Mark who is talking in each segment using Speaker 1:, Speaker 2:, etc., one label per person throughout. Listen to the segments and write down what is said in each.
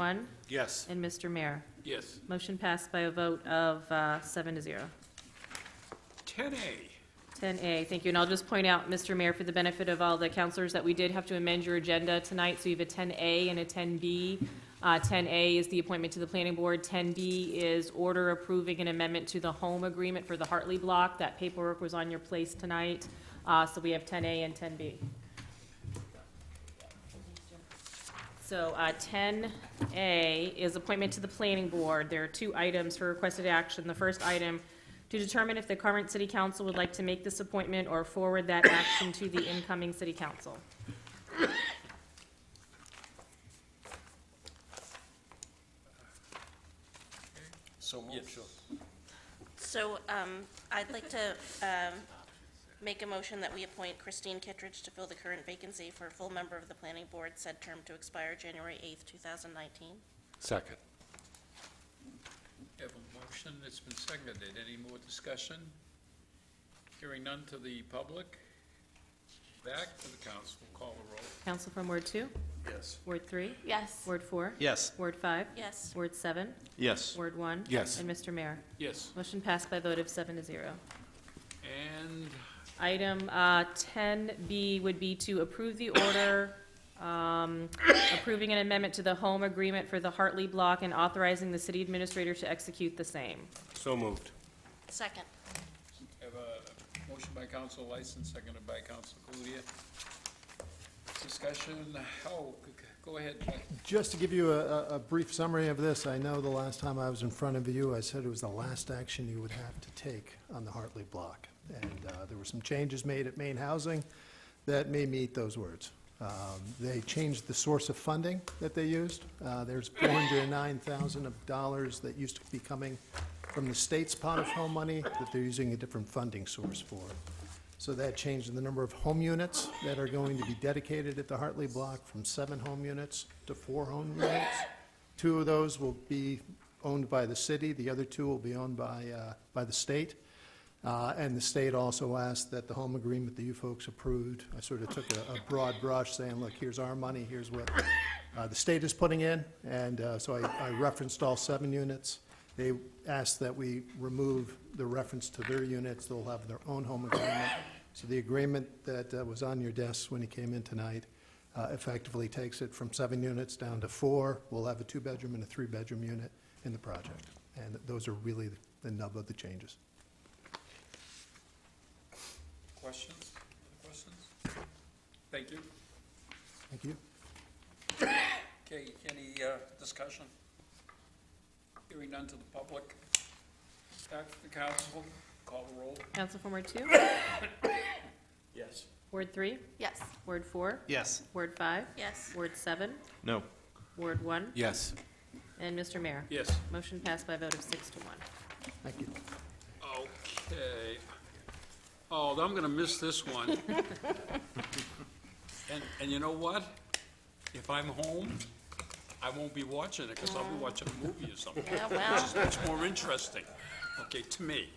Speaker 1: One,
Speaker 2: Yes.
Speaker 1: and Mr. Mayor.
Speaker 2: Yes.
Speaker 1: Motion passed by a vote of uh, seven to zero.
Speaker 2: 10A.
Speaker 1: 10A, thank you. And I'll just point out, Mr. Mayor, for the benefit of all the counselors, that we did have to amend your agenda tonight, so you have a 10A and a 10B. Uh, 10A is the appointment to the planning board. 10B is order approving an amendment to the home agreement for the Hartley Block. That paperwork was on your place tonight, Uh, so we have 10A and 10B. So uh, 10A is appointment to the planning board. There are two items for requested action. The first item, to determine if the current city council would like to make this appointment or forward that action to the incoming city council.
Speaker 2: So moved.
Speaker 3: So um, I'd like to um, make a motion that we appoint Christine Kittredge to fill the current vacancy for a full member of the planning board, said term to expire January 8th, 2019.
Speaker 4: Second.
Speaker 2: Have a motion that's been seconded. Any more discussion? Hearing none to the public. Back to the council. Call the roll.
Speaker 1: Council from Ward 2,
Speaker 2: Yes.
Speaker 1: Ward 3,
Speaker 3: Yes.
Speaker 1: Ward 4,
Speaker 4: Yes.
Speaker 1: Ward 5,
Speaker 3: Yes.
Speaker 1: Ward 7,
Speaker 4: Yes.
Speaker 1: Ward 1.
Speaker 4: Yes.
Speaker 1: And Mr. Mayor.
Speaker 2: Yes.
Speaker 1: Motion passed by a vote of seven to zero.
Speaker 2: And
Speaker 1: Item uh, 10B would be to approve the order um, approving an amendment to the home agreement for the Hartley Block and authorizing the city administrator to execute the same.
Speaker 4: So moved.
Speaker 3: Second.
Speaker 2: have a motion by Council License, seconded by Council Cludia. Discussion, how, go ahead, Mike.
Speaker 5: Just to give you a, a- a brief summary of this, I know the last time I was in front of you, I said it was the last action you would have to take on the Hartley block. And uh, there were some changes made at Maine Housing that may meet those words. Um, They changed the source of funding that they used. Uh, There's $409,000 of dollars that used to be coming from the state's pot of home money that they're using a different funding source for. So that changed the number of home units that are going to be dedicated at the Hartley Block from seven home units to four home units. Two of those will be owned by the city, the other two will be owned by, uh, by the state. Uh, And the state also asked that the home agreement that you folks approved, I sort of took a a broad brush saying, look, here's our money, here's what uh, the state is putting in, and uh, so I I referenced all seven units. They asked that we remove the reference to their units, they'll have their own home agreement. So the agreement that uh, was on your desks when you came in tonight uh, effectively takes it from seven units down to four. We'll have a two-bedroom and a three-bedroom unit in the project, and those are really the nub of the changes.
Speaker 2: questions? Questions? Thank you.
Speaker 5: Thank you.
Speaker 2: Okay, any uh, discussion? Hearing none to the public. Back to the council, call the roll.
Speaker 1: Council from Ward 2,
Speaker 2: Yes.
Speaker 1: Ward 3,
Speaker 3: Yes.
Speaker 1: Ward 4,
Speaker 4: Yes.
Speaker 1: Ward 5,
Speaker 3: Yes.
Speaker 1: Ward 7,
Speaker 4: No.
Speaker 1: Ward 1,
Speaker 4: Yes.
Speaker 1: and Mr. Mayor.
Speaker 2: Yes.
Speaker 1: Motion passed by a vote of six to one.
Speaker 5: Thank you.
Speaker 2: Okay. Oh, I'm gonna miss this one. And, and you know what? If I'm home, I won't be watching it, because I'll be watching a movie or something.
Speaker 3: Yeah, well.
Speaker 2: Which is much more interesting, okay, to me.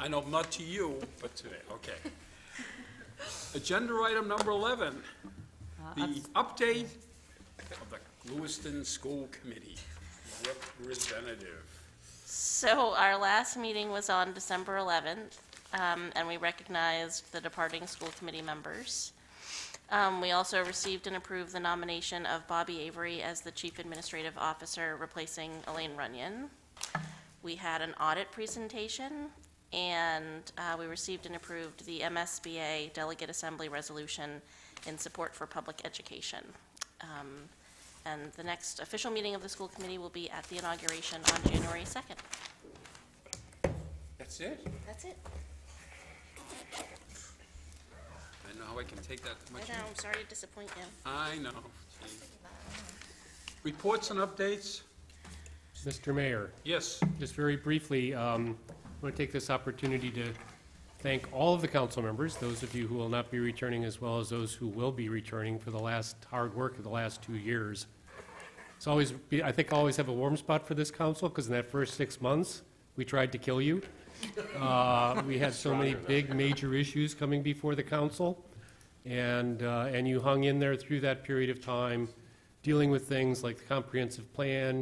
Speaker 2: I know, not to you, but to me, okay. Agenda item number 11, the update of the Lewiston School Committee representative.
Speaker 3: So our last meeting was on December 11th, um, and we recognized the departing school committee members. Um, We also received and approved the nomination of Bobby Avery as the Chief Administrative Officer, replacing Elaine Runyon. We had an audit presentation, and uh, we received and approved the MSBA Delegate Assembly Resolution in support for public education. Um, And the next official meeting of the school committee will be at the inauguration on January 2nd.
Speaker 2: That's it?
Speaker 3: That's it.
Speaker 2: I know how I can take that
Speaker 3: I
Speaker 2: much.
Speaker 3: know, I'm sorry to disappoint you.
Speaker 2: I know. Gee. Reports and updates?
Speaker 6: Mr. Mayor,
Speaker 2: Yes,
Speaker 6: just very briefly, um, I want to take this opportunity to thank all of the council members, those of you who will not be returning, as well as those who will be returning for the last hard work of the last two years. It's always, be- I think I always have a warm spot for this council, because in that first six months, we tried to kill you. Uh, We had so many big, major issues coming before the council, and, uh, and you hung in there through that period of time, dealing with things like the comprehensive plan,